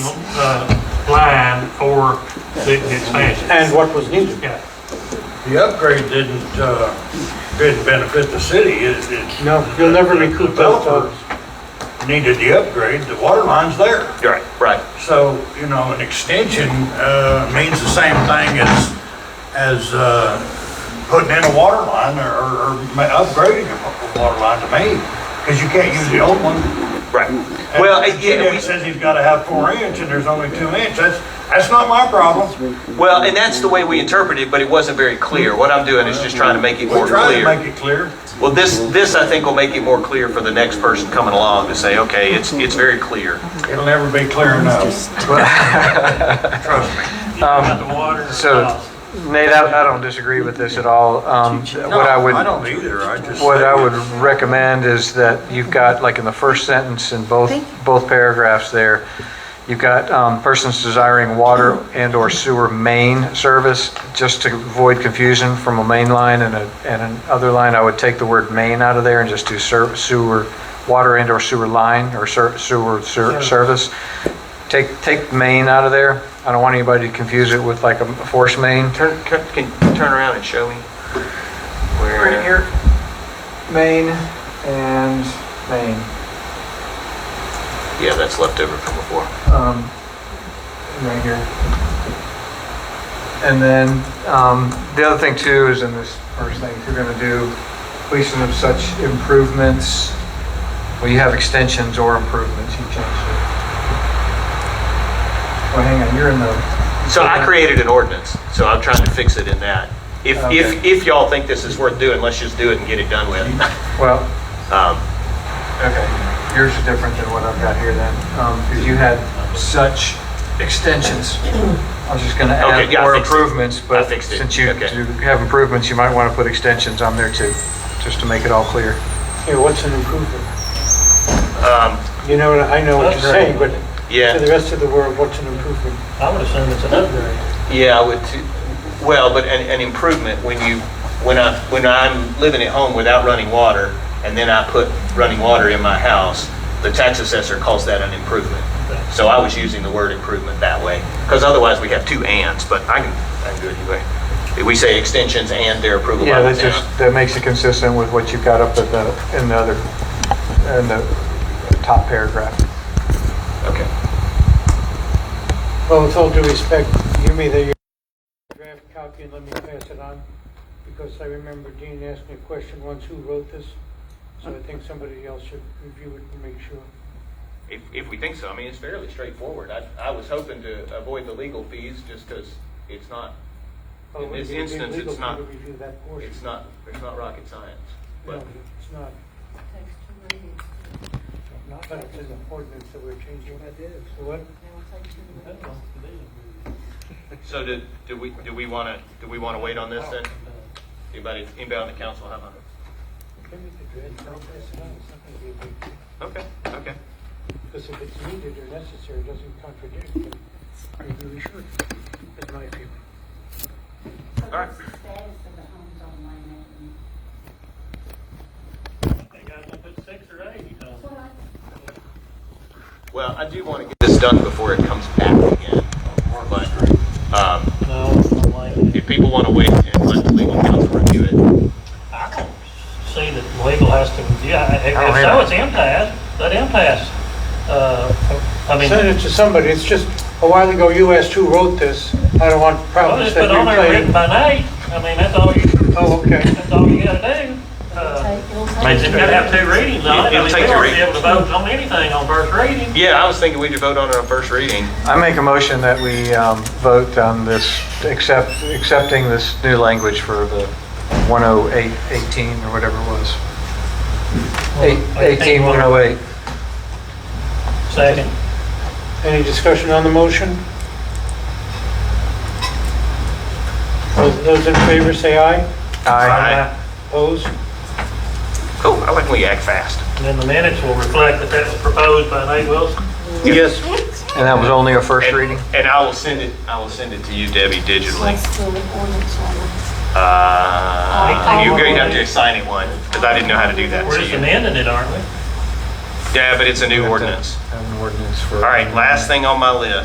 for uh, the the expansion. and what was needed. Yeah, The upgrade didn't, uh, didn't benefit the city, it, it's. No, you'll never recoup those dollars. Developer Needed the upgrade, the water line's there. Right, right. So, you know, an extension, uh, means the same thing as, as, uh, putting in a water line or, or ma- upgrading a water line to me. Cause you can't use the old one. Right. And Well, uh, He yeah, we- says he's gotta have four inch and there's only two inch, that's, that's not my problem. well, and that's the way we interpret it, but it wasn't very clear. What I'm doing is just trying to make it We more tried to clear. make it clear. Well, this, this I think will make it more clear for the next person coming along to say, okay, it's, it's very clear. It'll never be clear enough. Trust me. you got the water. and so- the house. Nate, I, I don't disagree with this at all. Um, what I would, No, I don't either, I just. what I would recommend is that you've got, like in the first sentence in both, both paragraphs there, you've got, um, persons desiring water and or sewer main service, just to avoid confusion from a main line and a, and an other line, I would take the word main out of there and just do ser- sewer, water and or sewer line or ser- sewer, ser- service. Take, take main out of there. I don't want anybody to confuse it with like a force main. Turn, can, can you turn around and show me? Right Where, here, Maine and Maine. yeah, that's left over from before. Um, right here. And then, um, the other thing too is in this first thing, if you're gonna do completion of such improvements, well, you have extensions or improvements, you change it. Well, hang on, you're in the, So I created an ordinance, so I'm trying to fix it in that. If, if, if y'all think this is worth doing, let's just do it and get it done with. well, Um, Okay, yours is different than what I've got here then, because you had such extensions. I was just going to add Okay, yeah, I more fixed it. improvements, I but fixed it. since you Okay. do have improvements, you might want to put extensions on there too, just to make it all clear. Here, what's an improvement? um, You know, I know what you're saying, but to the yeah, rest of the world, what's an improvement? I would assume it's an upgrade. yeah, I would too. Well, but an, an improvement when you, when I, when I'm living at home without running water and then I put running water in my house, the tax assessor calls that an improvement. So I was using the word improvement that way, because otherwise we have two ands, but I can, I can do it either way. We say extensions and their approval by Yeah, the that's town. just, that makes it consistent with what you've got up at the, in the other, in the top paragraph. Okay. Well, with all due respect, give me the draft copy and let me pass it on, because I remember Dean asking a question once, who wrote this? So I think somebody else should review it and make sure. If, if we think so, I mean, it's fairly straightforward. I, I was hoping to avoid the legal fees just because it's not, Well, Oh, it In this would be instance, legal it's for me not- to Review that portion. it's not, it's not rocket science. No, But, it's not. Takes two readings. But it's an ordinance that we're changing. That is. What? It will take two readings. so do, do we, do we want to, do we want to wait on this then? Anybody, anybody on the council have a? Give me the draft, I'll pass it on, it's not gonna be a big deal. Okay, okay. Because if it's needed or necessary, it doesn't contradict, then maybe we should, in my opinion. So right. what's the status of the homes online Nathan? They got to put six or eight, you know. Well, I- Well, I do want to get this done before it comes back again. But, um, No, I don't like it. if people want to wait and let the legal counsel review it, I don't see that legal has to, yeah, if I don't if so, either. it's impasse, let impasse. Uh, I mean, Send it to somebody, it's just, a while ago, you asked who wrote this, I don't want well, problems just that put on you're there written playing. by name. I mean, that's all you, Oh, okay. that's all you gotta do. Uh, Take- it'll take I mean, it's two gonna have readings. two readings on it. I It'll mean, take we a won't reading. Be able to vote on anything on first reading. yeah, I was thinking we'd vote on it on first reading. I make a motion that we um, vote on this, accept, accepting this new language for the 10818 or whatever it was. Eight- 18108. Second. Any discussion on the motion? Those those in favor say aye, Aye. opposed? Cool, I like when we act fast. And then the minutes will reflect that that was proposed by Nate Wilson. Yes. And that was only a first And- reading? And I will send it, I will send it to you, Debbie, digitally. What's the ordinance on it? Uh, You're going to have to assign it one, because I didn't know how to do that. We're So just you- amending it, aren't we? Yeah, but it's a new ordinance. Have an ordinance for. All right, last thing on my list.